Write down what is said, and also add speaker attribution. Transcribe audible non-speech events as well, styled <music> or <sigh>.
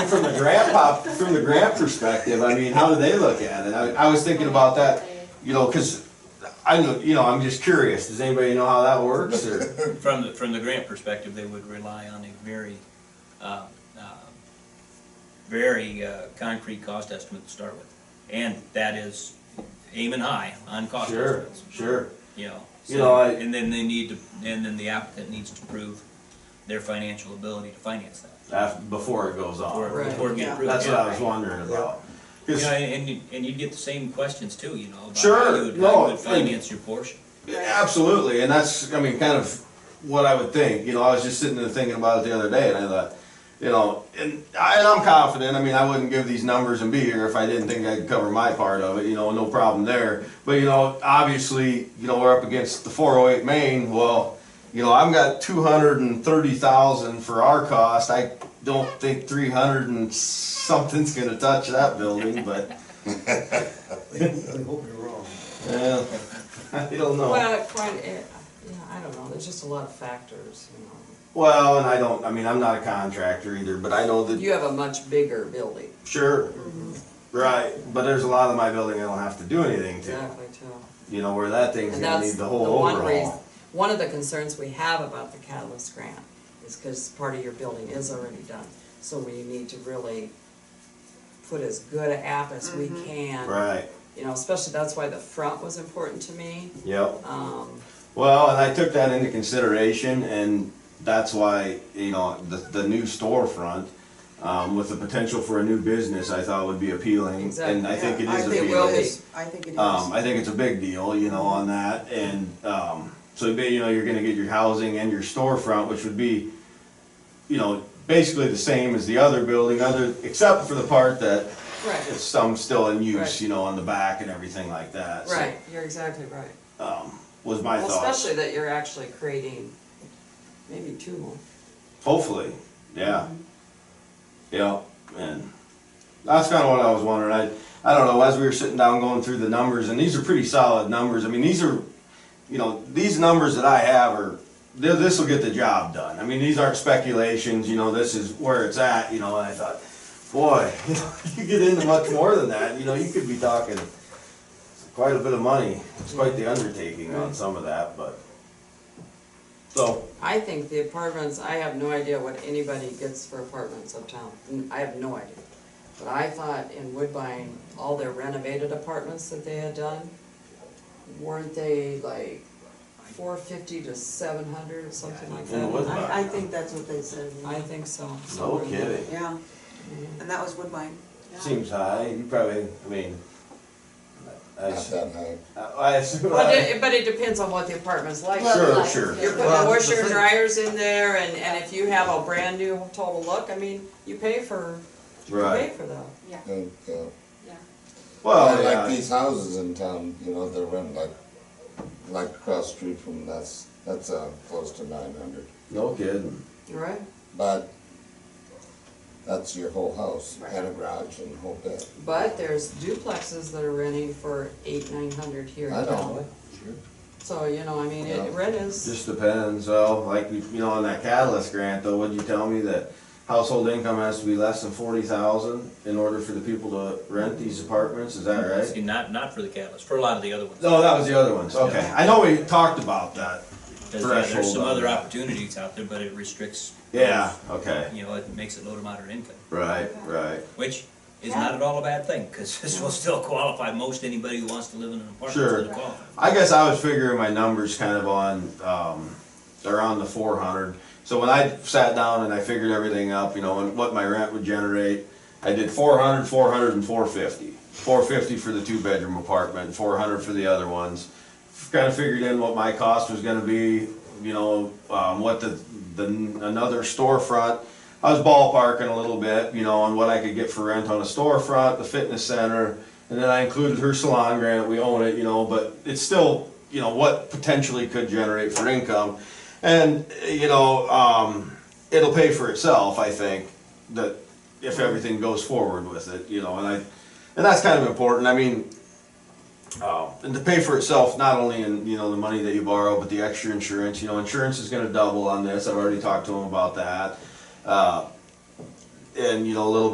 Speaker 1: From the grandpa, from the grand perspective, I mean, how do they look at it? I, I was thinking about that, you know, cause I know, you know, I'm just curious, does anybody know how that works or?
Speaker 2: From the, from the grant perspective, they would rely on a very, uh, uh, very uh, concrete cost estimate to start with. And that is aiming high on cost
Speaker 1: Sure,
Speaker 2: estimates,
Speaker 1: sure.
Speaker 2: you know.
Speaker 1: You
Speaker 2: so-
Speaker 1: know, I-
Speaker 2: And then they need to, and then the applicant needs to prove their financial ability to finance that.
Speaker 1: Af- before it goes
Speaker 2: Before
Speaker 1: on.
Speaker 2: before it gets
Speaker 3: yeah.
Speaker 2: approved.
Speaker 1: Ah, That's what
Speaker 2: yeah.
Speaker 1: I was wondering about.
Speaker 2: You
Speaker 1: 'Cause-
Speaker 2: know, and, you- and you'd get the same questions too, you know. about how
Speaker 1: Sure,
Speaker 2: you would- how
Speaker 1: no,
Speaker 2: you would
Speaker 1: and-
Speaker 2: finance your portion.
Speaker 1: Absolutely, and that's, I mean, kind of what I would think, you know, I was just sitting there thinking about it the other day, and I thought, you know, and I, and I'm confident, I mean, I wouldn't give these numbers and be here if I didn't think I could cover my part of it, you know, no problem there. But, you know, obviously, you know, we're up against the four oh eight main, well, you know, I've got two hundred and thirty thousand for our cost, I don't think three hundred and something's gonna touch that building, but,
Speaker 4: I hope you're wrong.
Speaker 1: uh, <laughs> I don't know.
Speaker 3: Well, quite, it, yeah, I don't know, there's just a lot of factors, you know.
Speaker 1: Well, and I don't, I mean, I'm not a contractor either, but I know that,
Speaker 3: You have a much bigger building,
Speaker 1: sure, right, but there's a lot of my building I don't have to do anything to.
Speaker 3: exactly, too.
Speaker 1: You know, where that thing's
Speaker 3: And
Speaker 1: gonna need
Speaker 3: that's
Speaker 1: the
Speaker 3: the
Speaker 1: whole
Speaker 3: one reason,
Speaker 1: overhaul.
Speaker 3: one of the concerns we have about the Catalyst grant is because part of your building is already done. So we need to really put as good an app as we can.
Speaker 1: Right,
Speaker 3: You know, especially, that's why the front was important to me.
Speaker 1: yep.
Speaker 3: Um,
Speaker 1: Well, and I took that into consideration and that's why, you know, the, the new storefront, um, with the potential for a new business, I thought would be appealing. And I think it
Speaker 5: I
Speaker 1: is
Speaker 5: think
Speaker 1: appealing.
Speaker 5: it will be, I think it is.
Speaker 1: Um, I think it's a big deal, you know, on that, and, um, so, ba- you know, you're gonna get your housing and your storefront, which would be, you know, basically the same as the other building, other, except for the part that
Speaker 3: right,
Speaker 1: it's some still in use,
Speaker 3: Right.
Speaker 1: you know, on the back and everything like that. so,
Speaker 3: right, you're exactly right.
Speaker 1: Um, was my
Speaker 3: Well,
Speaker 1: thought,
Speaker 3: especially that you're actually creating maybe two more.
Speaker 1: hopefully, yeah. Yeah, and that's kinda what I was wondering, I, I don't know, as we were sitting down going through the numbers, and these are pretty solid numbers, I mean, these are you know, these numbers that I have are, this will get the job done. I mean, these aren't speculations, you know, this is where it's at, you know, and I thought, boy, <laughs> you know, you get into much more than that, you know, you could be talking quite a bit of money. It's quite the undertaking on some of that, but, so,
Speaker 3: I think the apartments, I have no idea what anybody gets for apartments uptown. N- I have no idea. But I thought in Woodbine, all their renovated apartments that they had done, weren't they like four fifty to seven hundred or something like
Speaker 1: In
Speaker 3: that?
Speaker 1: Woodbine.
Speaker 5: I, I think that's what they said.
Speaker 3: I think so.
Speaker 1: no
Speaker 3: somewhere in there.
Speaker 1: kidding.
Speaker 5: Yeah, and that was Woodbine. Yeah.
Speaker 1: Seems high, you probably, I mean, I,
Speaker 6: Not
Speaker 1: I-
Speaker 6: that high.
Speaker 1: I assume,
Speaker 3: Well, it- but it depends on what the apartment's like.
Speaker 1: sure, sure.
Speaker 3: You're putting the
Speaker 4: Well,
Speaker 3: washer
Speaker 4: the
Speaker 3: and
Speaker 4: thing-
Speaker 3: dryers in there and, and if you have a brand new total look, I mean, you pay for, you pay
Speaker 1: Right,
Speaker 3: for that.
Speaker 7: Yeah,
Speaker 6: And, uh,
Speaker 7: yeah.
Speaker 1: well,
Speaker 6: Like
Speaker 1: Oh, yeah,
Speaker 6: these houses in town, you know, they're rent like, like across the street from that's, that's, uh, close to nine hundred.
Speaker 1: no kidding,
Speaker 3: Right.
Speaker 6: But that's your whole house and a garage and whole bit.
Speaker 3: But there's duplexes that are renting for eight, nine hundred here
Speaker 6: I
Speaker 3: in
Speaker 6: know.
Speaker 3: town. So, you know, I mean,
Speaker 6: Yeah.
Speaker 3: it, rent is,
Speaker 1: Just depends, well, like, you you know, on that catalyst grant, though, would you tell me that household income has to be less than forty thousand in order for the people to rent these apartments, is that right?
Speaker 2: See, not, not for the catalyst, for a lot of the other ones.
Speaker 1: No, that was the other ones, okay, I know we talked about that,
Speaker 2: There's, yeah, there's some
Speaker 1: Threshold on
Speaker 2: other
Speaker 1: that.
Speaker 2: opportunities out there, but it restricts.
Speaker 1: yeah, okay,
Speaker 2: You know, it makes it low to moderate income,
Speaker 1: right, right,
Speaker 2: which is not at all a bad thing, because <laughs> this will still qualify most anybody who wants to live in an apartment
Speaker 1: Sure.
Speaker 2: is gonna qualify.
Speaker 1: I guess I was figuring my numbers kind of on, um, around the four hundred. So when I sat down and I figured everything up, you know, and what my rent would generate, I did 400, 400, and 450. 450 for the two-bedroom apartment, four hundred for the other ones. Kind of figured in what my cost was gonna be, you know, um, what the, the, another storefront. I was ballparking a little bit, you know, on what I could get for rent on a storefront, the fitness center, and then I included her salon grant, we own it, you know, but it's still, you know, what potentially could generate for income. And, eh, you know, um, it'll pay for itself, I think, that if everything goes forward with it, you know, and I, and that's kind of important, I mean, uh, and to pay for itself, not only in, you know, the money that you borrow, but the extra insurance, you know, insurance is gonna double on this, I've already talked to him about that. Uh, And, you know, a little